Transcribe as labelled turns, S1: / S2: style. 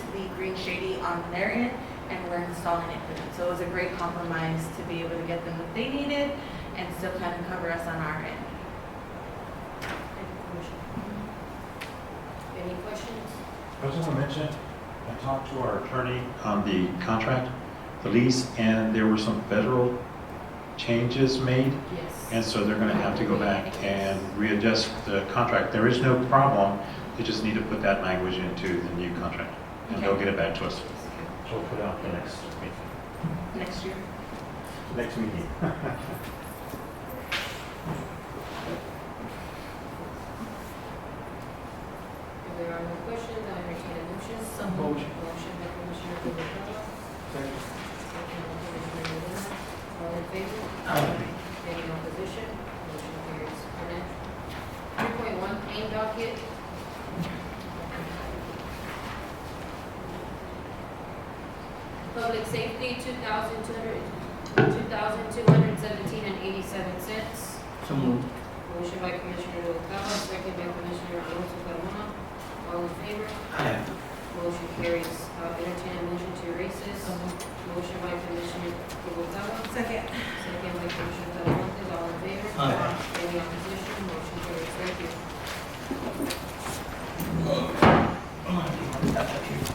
S1: on their end, and we're installing it for them. So it was a great compromise to be able to get them what they needed and still kind of cover us on our end.
S2: Any questions?
S3: I was gonna mention, I talked to our attorney on the contract, the lease, and there were some federal changes made, and
S2: Yes.
S3: so they're gonna have to go back and readjust the contract. There is no problem, they just need to put that language into the new contract, and they'll get it back to us. So we'll put it out the next meeting.
S1: Next year.
S3: Next meeting.
S2: If there are no questions, I entertain a motion. Some
S4: Motion.
S2: Motion by Commissioner Pimentel, second by Commissioner Uranda. All in favor? Any opposition? Motion carries. Three point one, claim docket. Public safety, two thousand two hundred, two thousand two hundred seventeen and eighty-seven cents.
S4: So moved.
S2: Motion by Commissioner Noguera, second by Commissioner Alonso Carmona. All in favor?
S4: Aye.
S2: Motion carries. Uh, entertain a motion to erase this. Motion by Commissioner Noguera,
S1: Second.
S2: second by Commissioner Talamontes. All in